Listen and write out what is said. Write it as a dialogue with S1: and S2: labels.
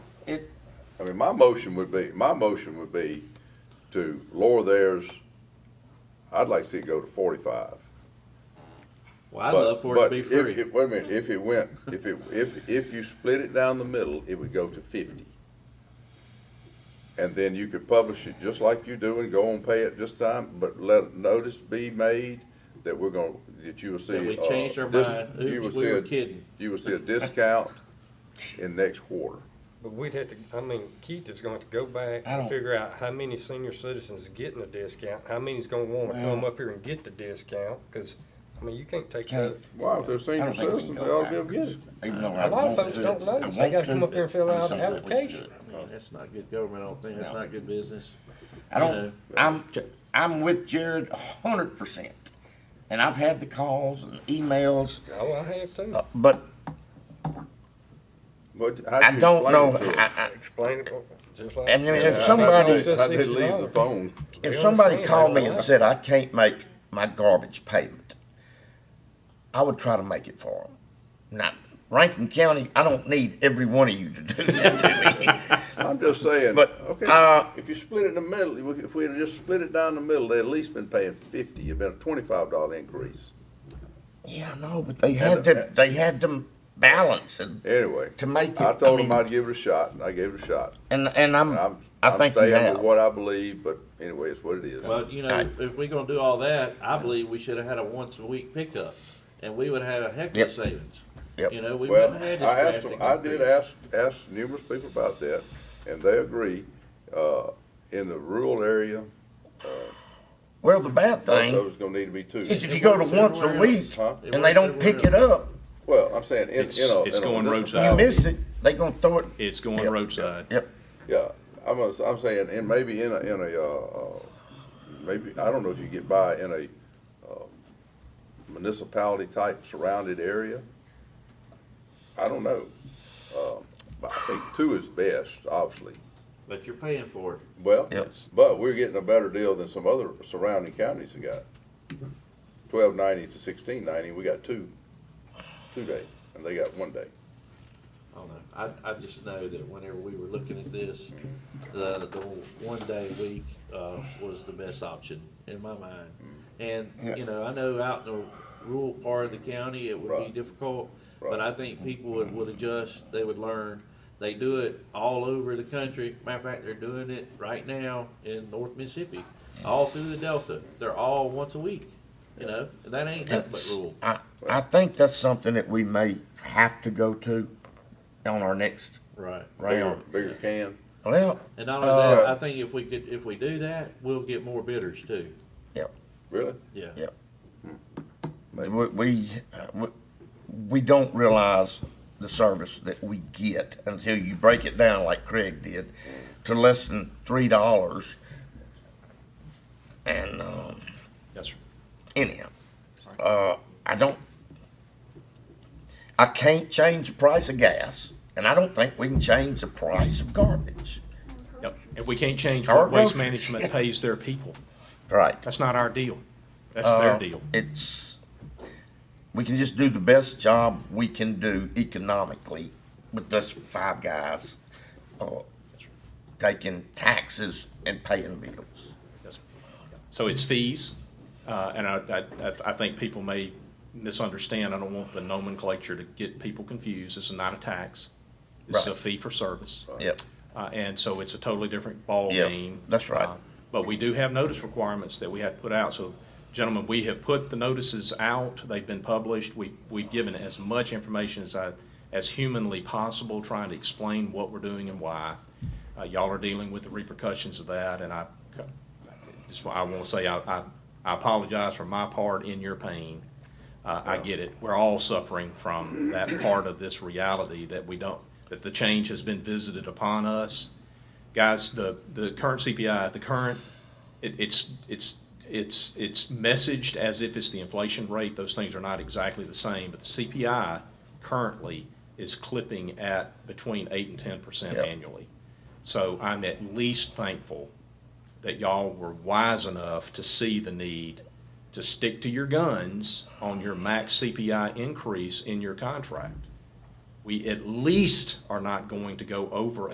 S1: It,
S2: I mean, my motion would be, my motion would be to lower theirs, I'd like to see it go to forty-five.
S3: Well, I'd
S2: But-
S3: love for it to
S2: but
S3: be
S2: if-
S3: free.
S2: if- Wait a minute, if it went, if it, if, if you split it down the middle, it would go to fifty. And then you could publish it just like you do and go and pay it this time, but let notice be made that we're gonna, that you will see.
S3: That we
S2: uh,
S3: changed our
S2: dis-
S3: mind.
S2: you
S3: Oops,
S2: will
S3: we
S2: see
S3: were
S2: a-
S3: kidding.
S2: You will see a discount in next quarter.
S4: But we'd have to, I mean, Keith is going to go back
S5: I don't-
S4: and figure out how many senior citizens is getting a discount, how many's gonna wanna
S5: Well-
S4: come up here and get the discount, cause, I mean, you can't take that.
S5: Can't.
S2: Wow, if they're
S5: I
S2: senior
S5: don't think we can
S2: citizens,
S5: go
S2: they ought to be able to get
S5: backwards,
S2: it.
S5: Even though I
S4: A lot of
S5: want
S4: folks
S5: to.
S4: don't know.
S5: I
S4: They
S5: want
S4: gotta come
S5: to.
S4: up here and fill
S5: I'm
S4: out
S5: saying
S4: the
S5: that we should
S4: application.
S5: do it.
S6: I mean, that's not good government, I don't think, that's
S5: No.
S6: not good business.
S5: I
S6: You
S5: don't,
S6: know.
S5: I'm, I'm with Jared a hundred percent. And I've had the calls and emails,
S4: Oh, I have
S5: uh,
S4: to.
S5: but
S2: But how do
S5: I
S2: you
S5: don't
S2: explain
S5: know,
S2: it to 'em?
S5: I, I,
S4: Explain it, just like.
S5: And I mean, if
S4: Yeah,
S5: somebody-
S4: it's just
S2: How'd they leave the
S4: $60.
S2: phone?
S5: if
S4: They
S5: somebody
S4: understand.
S5: called me
S4: They
S5: and
S4: don't
S5: said, I can't make my garbage payment, I would try to make it for them. Now, Rankin County, I don't need every one of you to do that to me.
S2: I'm just saying,
S5: But,
S2: okay,
S5: uh,
S2: if you split it in the middle, if we had just split it down the middle, they'd at least been paying fifty, it'd been a twenty-five dollar increase.
S5: Yeah, I know, but they had
S2: And-
S5: to, they had to balance and,
S2: Anyway,
S5: To make it-
S2: I told
S5: I
S2: them
S5: mean-
S2: I'd give it a shot, and I gave it a shot.
S5: and, and I'm,
S2: And I'm,
S5: I
S2: I'm
S5: think you
S2: staying
S5: have.
S2: with what I believe, but anyway, it's what it is.
S6: Well, you know,
S5: Right.
S6: if we're gonna do all that, I believe we should have had a once a week pickup, and we would have a heck of
S5: Yep.
S6: a savings.
S5: Yep.
S6: You know, we
S2: Well,
S6: wouldn't have
S2: I
S6: had
S2: asked,
S6: this drastic
S2: them- I did
S6: increase.
S2: ask, ask numerous people about that, and they agree, uh, in the rural area,
S5: Well, the bad
S2: those
S5: thing
S2: those gonna need to be two.
S5: is if you go to once a week
S2: Huh?
S5: and they don't pick it up,
S2: Well, I'm saying, in, in a.
S7: It's-
S2: in
S7: it's
S2: a
S7: going
S2: municipality-
S5: you
S7: roadside.
S5: miss it, they gonna throw it.
S7: It's going
S5: Yep.
S7: roadside.
S5: Yep.
S2: Yeah, I'm, gonna- I'm saying, and maybe in a, in a, uh, uh, maybe, I don't know if you get by in a uh, municipality type surrounded area. I don't know. Uh, But I think two is best, obviously.
S6: But you're paying for it.
S2: Well,
S5: Yep.
S2: but we're getting a better deal than some other surrounding counties have got. Twelve ninety to sixteen ninety, we got two, two day, and they got one day.
S6: I don't know. I, I just know that whenever we were looking at this, the, the one day a week, uh, was the best option in my mind. And, you know, I know out in the rural part of the county, it would be
S2: Right.
S6: difficult, but
S2: Right.
S6: I think people would, would adjust, they would learn. They do it all over the country. Matter of fact, they're doing it right now in North Mississippi, all through the Delta. They're all once a week, you know, and that ain't nothing but
S5: That's-
S6: rural.
S5: I, I think that's something that we may have to go to on our next
S6: Right.
S2: Bigger,
S5: round.
S2: bigger can.
S5: Well,
S6: And not only that,
S2: Uh,
S6: I think if we could, if we do that, we'll get more bidders too.
S5: yep,
S2: Really?
S6: Yeah.
S5: yep. We, we, uh, we, we don't realize the service that we get until you break it down like Craig did to less than three dollars. And, um,
S7: Yes, sir.
S5: anyhow, uh, I don't, I can't change the price of gas, and I don't think we can change the price of garbage.
S7: Yep. And we can't change
S5: Our
S7: what waste
S5: groceries.
S7: management pays their people.
S5: Right.
S7: That's not our deal. That's their
S5: Uh,
S7: deal.
S5: It's, we can just do the best job we can do economically with those five guys, uh, taking taxes and paying bills.
S7: Yes, sir. So it's fees, uh, and I, I, I- I think people may misunderstand. I don't want the nomenclature to get people confused. This is not a tax. This is a
S5: Right.
S7: fee for service.
S5: Yep.
S7: Uh, and so it's a totally different ball
S5: Yeah,
S7: game.
S5: that's right.
S7: Uh, But we do have notice requirements that we have to put out. So gentlemen, we have put the notices out. They've been published. We, we've given as much information as I, as humanly possible, trying to explain what we're doing and why. Uh, y'all are dealing with the repercussions of that and I, just, I want to say I, I, I apologize for my part in your pain. Uh, I get it. We're all suffering from that part of this reality that we don't, that the change has been visited upon us. Guys, the, the current CPI, the current, it, it's, it's, it's, it's messaged as if it's the inflation rate. Those things are not exactly the same, but the CPI currently is clipping at between eight and ten percent
S5: Yep.
S7: annually. So I'm at least thankful that y'all were wise enough to see the need to stick to your guns on your max CPI increase in your contract. We at least are not going to go over